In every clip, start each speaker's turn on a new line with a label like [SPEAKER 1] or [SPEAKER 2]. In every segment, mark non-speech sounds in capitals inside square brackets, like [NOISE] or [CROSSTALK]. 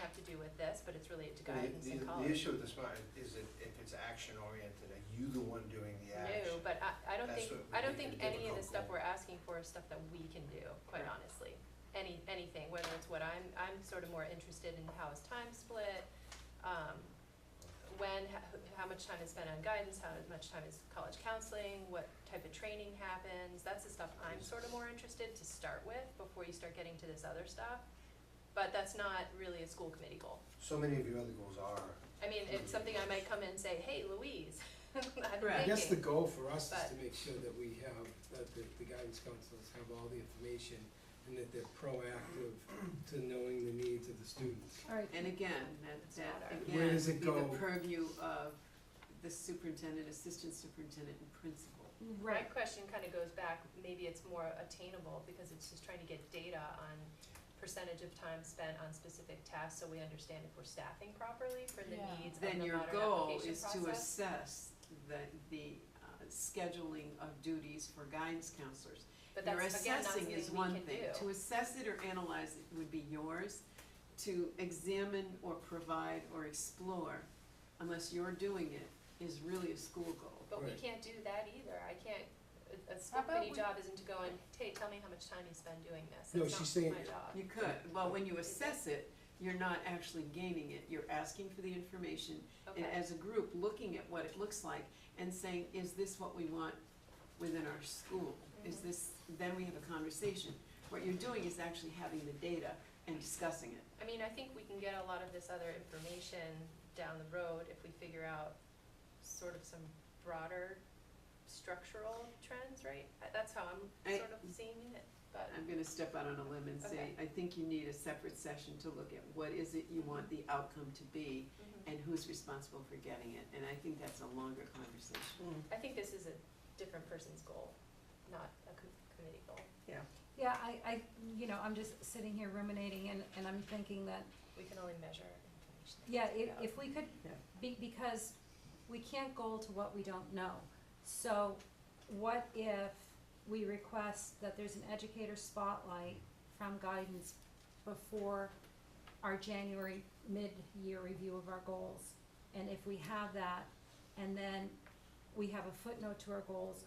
[SPEAKER 1] have to do with this, but it's related to
[SPEAKER 2] The-
[SPEAKER 1] guidance
[SPEAKER 2] the-
[SPEAKER 1] and
[SPEAKER 2] The
[SPEAKER 1] college.
[SPEAKER 2] issue with the smart is if, if it's action oriented, are you the one doing the action?
[SPEAKER 1] No, but I, I don't
[SPEAKER 2] That's
[SPEAKER 1] think,
[SPEAKER 2] what
[SPEAKER 1] I don't
[SPEAKER 2] we
[SPEAKER 1] think
[SPEAKER 2] can do
[SPEAKER 1] any of the
[SPEAKER 2] with
[SPEAKER 1] stuff
[SPEAKER 2] alcohol.
[SPEAKER 1] we're asking for is stuff that we can do, quite honestly. Any, anything, whether it's what I'm, I'm sort of more interested in how is time split, um, when, how, how much time is spent on guidance, how much time is college counseling, what type of training happens, that's the stuff I'm sort of more interested to start with before you start getting to this other stuff. But that's not really a school committee goal.
[SPEAKER 2] So many of your other goals are,
[SPEAKER 1] I mean, it's something I might come in and say, hey, Louise, [LAUGHS] I'm
[SPEAKER 3] I guess the
[SPEAKER 1] thinking."
[SPEAKER 3] goal for us is
[SPEAKER 1] But-
[SPEAKER 3] to make sure that we have, that the, the guidance counselors have all the information and that they're proactive to knowing the needs of the students.
[SPEAKER 4] All right,
[SPEAKER 5] And again, that, that
[SPEAKER 1] Where
[SPEAKER 5] again
[SPEAKER 3] does
[SPEAKER 5] would
[SPEAKER 3] it
[SPEAKER 5] be
[SPEAKER 3] go?
[SPEAKER 5] the purview of the superintendent, assistant superintendent, and principal.
[SPEAKER 1] My
[SPEAKER 4] right,
[SPEAKER 1] question kind of goes back, maybe it's more attainable because it's just trying to get data on percentage of time spent on specific tasks so we understand if we're staffing properly for the
[SPEAKER 4] Yeah.
[SPEAKER 1] needs of the
[SPEAKER 5] Then your
[SPEAKER 1] modern
[SPEAKER 5] goal
[SPEAKER 1] application
[SPEAKER 5] is to
[SPEAKER 1] process.
[SPEAKER 5] assess the, the uh, scheduling of duties for guidance counselors.
[SPEAKER 1] But
[SPEAKER 5] Your
[SPEAKER 1] that's, again, not
[SPEAKER 5] assessing
[SPEAKER 1] something
[SPEAKER 5] is
[SPEAKER 1] we
[SPEAKER 5] one
[SPEAKER 1] can
[SPEAKER 5] thing,
[SPEAKER 1] do.
[SPEAKER 5] to assess it or analyze it would be yours, to examine or provide or explore, unless you're doing it, is really a school goal.
[SPEAKER 1] But we
[SPEAKER 3] Right.
[SPEAKER 1] can't do that either. I can't, a- a school
[SPEAKER 4] about
[SPEAKER 1] committee
[SPEAKER 4] we-
[SPEAKER 1] job isn't to go and, hey, tell me how much time you spend doing this.
[SPEAKER 3] No,
[SPEAKER 1] That's
[SPEAKER 3] she's
[SPEAKER 1] not
[SPEAKER 3] saying-
[SPEAKER 1] my job.
[SPEAKER 5] You could, well, when you assess it, you're not actually gaining it, you're asking for the information, and
[SPEAKER 1] Okay.
[SPEAKER 5] as a group, looking at what it looks like and saying, is this what we want within our school? Is
[SPEAKER 1] Mhm.
[SPEAKER 5] this, then we have a conversation. What you're doing is actually having the data and discussing it.
[SPEAKER 1] I mean, I think we can get a lot of this other information down the road if we figure out sort of some broader structural trends, right? Uh, That's how I'm
[SPEAKER 5] I-
[SPEAKER 1] sort of seeing it, but,
[SPEAKER 5] I'm gonna step out on a limb and say,
[SPEAKER 1] Okay.
[SPEAKER 5] I think you need a separate session to look at what is it you want the outcome to be
[SPEAKER 1] mhm.
[SPEAKER 5] and who's responsible for getting it, and I think that's a longer conversation.
[SPEAKER 1] I think this is a different person's goal, not a co- committee goal.
[SPEAKER 4] yeah, I, I, you know, I'm just sitting here ruminating and, and I'm thinking that,
[SPEAKER 1] We can only measure information.
[SPEAKER 4] yeah, if, if we could,
[SPEAKER 5] Yeah.
[SPEAKER 4] be, because we can't goal to what we don't know. So what if we request that there's an educator spotlight from guidance before our January mid-year review of our goals? And if we have that, and then we have a footnote to our goals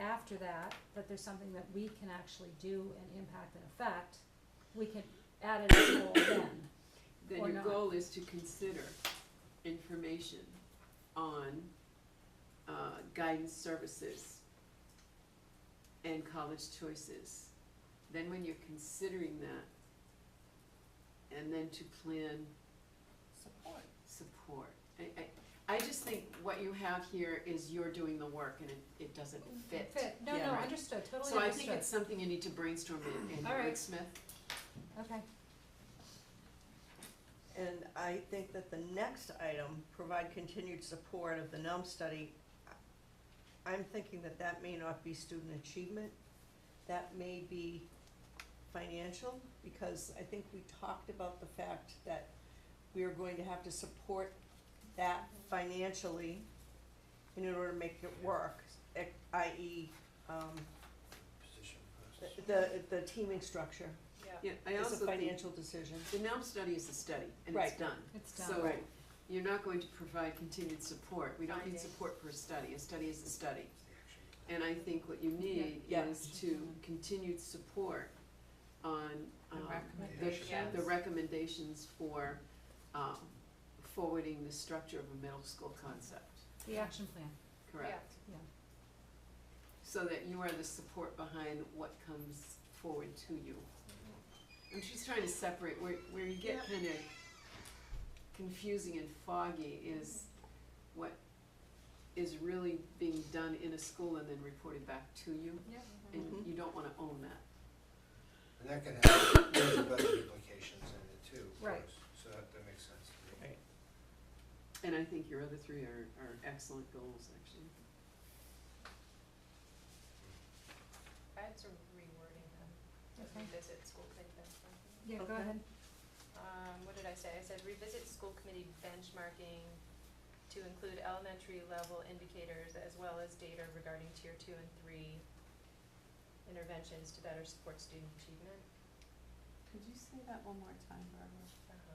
[SPEAKER 4] after that, that there's something that we can actually do and impact and affect, we can add it as a goal then.
[SPEAKER 5] Then
[SPEAKER 4] Or
[SPEAKER 5] your
[SPEAKER 4] not.
[SPEAKER 5] goal is to consider information on uh, guidance services and college choices. Then when you're considering that, and then to plan
[SPEAKER 4] Support.
[SPEAKER 5] support. I, I, I just think what you have here is you're doing the work and it, it doesn't fit.
[SPEAKER 4] No,
[SPEAKER 5] Yeah.
[SPEAKER 4] no,
[SPEAKER 5] Right.
[SPEAKER 4] understood, totally
[SPEAKER 5] So I think
[SPEAKER 4] understood.
[SPEAKER 5] it's something you need to brainstorm and, and
[SPEAKER 4] All right.
[SPEAKER 5] wordsmith.
[SPEAKER 4] Okay,
[SPEAKER 6] And I think that the next item, provide continued support of the NUM study, I'm thinking that that may not be student achievement, that may be financial, because I think we talked about the fact that we are going to have to support that financially in order to make it work, e- i.e., um,
[SPEAKER 2] position versus-
[SPEAKER 6] the- the, the teaming structure
[SPEAKER 1] Yeah,
[SPEAKER 5] Yeah, I
[SPEAKER 6] is
[SPEAKER 5] also
[SPEAKER 6] a
[SPEAKER 5] think,
[SPEAKER 6] financial decision.
[SPEAKER 5] the NELM study is a study and it's
[SPEAKER 6] Right.
[SPEAKER 5] done.
[SPEAKER 4] it's done.
[SPEAKER 5] So,
[SPEAKER 6] Right.
[SPEAKER 5] you're not going to provide continued support, we don't need
[SPEAKER 1] Findings.
[SPEAKER 5] support for a study, a study is a study.
[SPEAKER 2] the action.
[SPEAKER 5] And I think what you need
[SPEAKER 6] Yeah.
[SPEAKER 5] is to continued support on, um, the,
[SPEAKER 1] Yeah.
[SPEAKER 5] the recommendations for, um, forwarding the structure of a middle school concept,
[SPEAKER 4] The action plan,
[SPEAKER 5] correct?
[SPEAKER 4] Yeah. Yeah.
[SPEAKER 5] So that you are the support behind what comes forward to you.
[SPEAKER 1] Mm-hmm.
[SPEAKER 5] I'm just trying to separate where, where you get kind of confusing and foggy is what is really being done in a school and then reported back to you.
[SPEAKER 4] Yep.
[SPEAKER 5] And
[SPEAKER 1] Mm-hmm.
[SPEAKER 6] Mhm.
[SPEAKER 5] you don't wanna own that.
[SPEAKER 2] And that can have, [COUGHS] there's other implications in it too, of
[SPEAKER 4] Right.
[SPEAKER 2] course, so that, that makes sense to me.
[SPEAKER 6] Right.
[SPEAKER 5] And I think your other three are, are excellent goals, actually.
[SPEAKER 1] I had some rewording them,
[SPEAKER 4] Okay.
[SPEAKER 1] revisit school committee benchmarking.
[SPEAKER 4] yeah, go
[SPEAKER 6] Okay.
[SPEAKER 4] ahead.
[SPEAKER 1] um, what did I say? I said revisit school committee benchmarking to include elementary level indicators as well as data regarding tier two and three interventions to better support student achievement.
[SPEAKER 5] Could you say that one more time, Barbara?
[SPEAKER 1] Um,